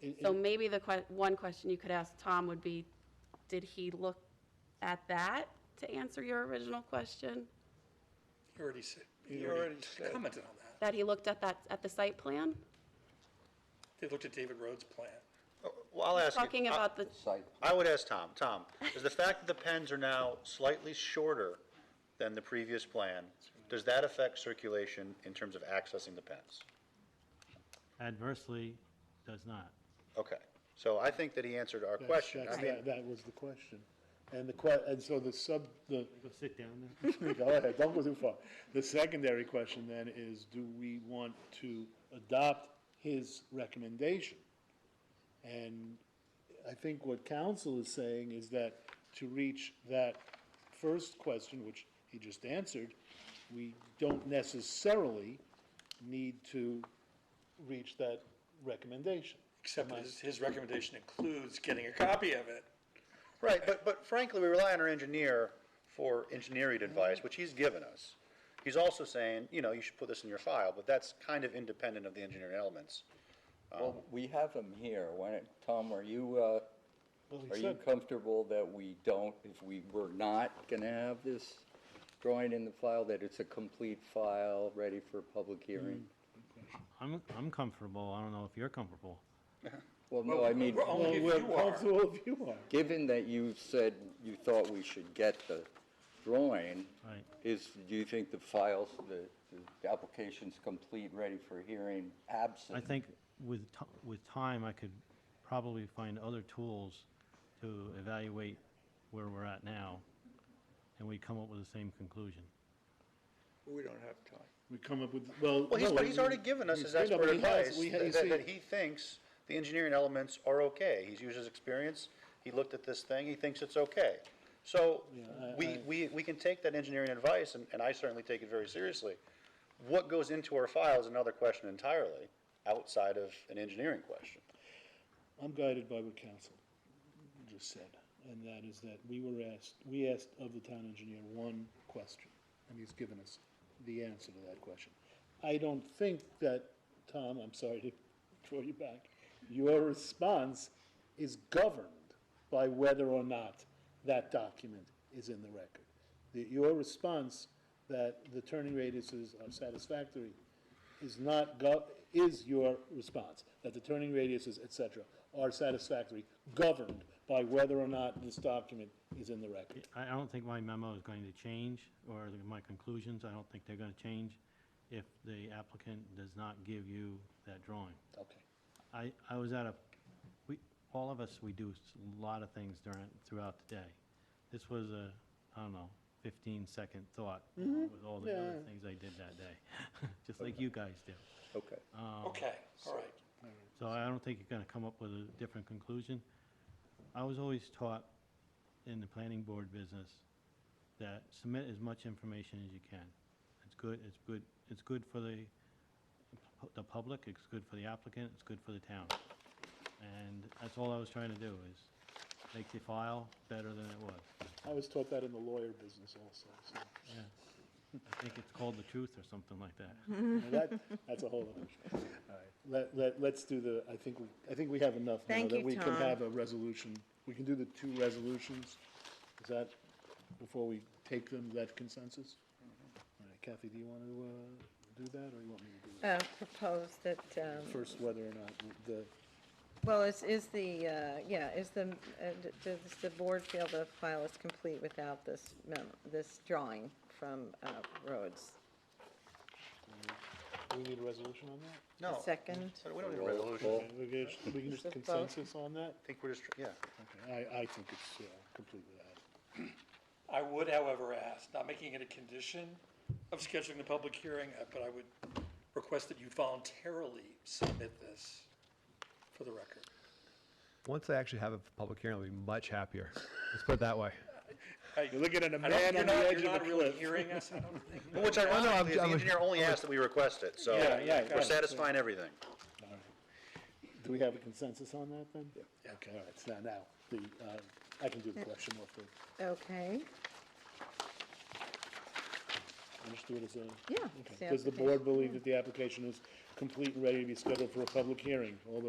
And- So and- maybe the que, one question you could ask Tom would be, did he look at that to answer your original question? You already said, You you already already said. commented on that. That he looked at that, at the site plan? They looked at David Rhodes' plan. Well, I'll ask you. Talking I- about the, I would ask Tom. Tom, is the fact that the pens are now slightly shorter than the previous plan, does that affect circulation in terms of accessing the pens? adversely does not. Okay, so I think that he answered our question. That's- I mean, that- That was the question. And the que, and so the sub, the, Go sit down there. go ahead, don't go too far. The secondary question then is, do we want to adopt his recommendation? And I think what council is saying is that to reach that first question, which he just answered, we don't necessarily need to reach that recommendation. Except his, his recommendation includes getting a copy of it. Right, but, but frankly, we rely on our engineer for engineering advice, which he's given us. He's also saying, you know, you should put this in your file, but that's kind of independent of the engineering elements. Well, we have them here. Why don't, Tom, are you, uh, Well, he are you said- comfortable that we don't, if we were not gonna have this drawing in the file, that it's a complete file, ready for public hearing? I'm, I'm comfortable. I don't know if you're comfortable. Well, no, I mean, We're only Well, if you we're are. comfortable if you are. given that you said you thought we should get the drawing, Right. is, do you think the files, the, the application's complete, ready for hearing, absent? I think with, ti- with time, I could probably find other tools to evaluate where we're at now, and we come up with the same conclusion. We don't have time. We come up with, well. Well, he's, no, but he's already given us his expert No, but he has- advice, we ha- you that, that- that see, he thinks the engineering elements are okay. He's used his experience, he looked at this thing, he thinks it's okay. So, I- we, I- we, we can take that engineering advice, and, and I certainly take it very seriously. What goes into our file is another question entirely, outside of an engineering question. I'm guided by what council just said, and that is that we were asked, we asked of the town engineer one question, and he's given us the answer to that question. I don't think that, Tom, I'm sorry to throw you back, your response is governed by whether or not that document is in the record. The- Your response that the turning radiuses are satisfactory is not gov, is your response, that the turning radiuses, et cetera, are satisfactory, governed by whether or not this document is in the record. I I don't think my memo is going to change, or the- my conclusions, I don't think they're going to change if the applicant does not give you that drawing. Okay. I, I was at a, we, all of us, we do s- a lot of things during, throughout the day. This was a, I don't know, 15-second thought with all the other Yeah. things I did that day, just like you guys do. Um, Okay. Okay, all right. So I don't think you're going to come up with a different conclusion. I was always taught in the planning board business that submit as much information as you can. It's good, it's good, it's good for the, pu- the public, it's good for the applicant, it's good for the town. And that's all I was trying to do, is make the file better than it was. I was taught that in the lawyer business also, so, I think it's called the truth or something like that. Now that, that's a whole other issue. Let, let, let's do the, I think, we I think we have enough now Thank that you, we can Tom. have a resolution. We can do the two resolutions, is that, before we take them, that consensus? All right, Kathy, do you want to, uh, do that, or you want me to do that? uh, propose that, um, First, whether or not the, well, is, is the, uh, yeah, is the, uh, d- does the board feel the file is complete without this memo, this drawing from uh, Rhodes? Do we need a resolution on that? A Second? We don't need a resolution. We can just- We can just Just vote. consensus on that? I think we're just, yeah. Okay, I, I think it's, yeah, completely out. I would, however, ask, not making it a condition of scheduling the public hearing, uh, but I would request that you voluntarily submit this for the record. Once I actually have a public hearing, I'll be much happier. Let's put it that way. You're looking at a man on the edge of You're the not really cliff. hearing us, I don't think. Which ironically, is the I'm- engineer only asked that we request it, so Yeah, yeah, got we're it. satisfying everything. Do we have a consensus on that then? Yeah. Okay, all right, so now, now, the, uh, I can do the question off the, Okay, I'll just do it as a. Yeah, okay. it's the Does the application, board believe that the application is complete and ready to be scheduled for a public hearing? All those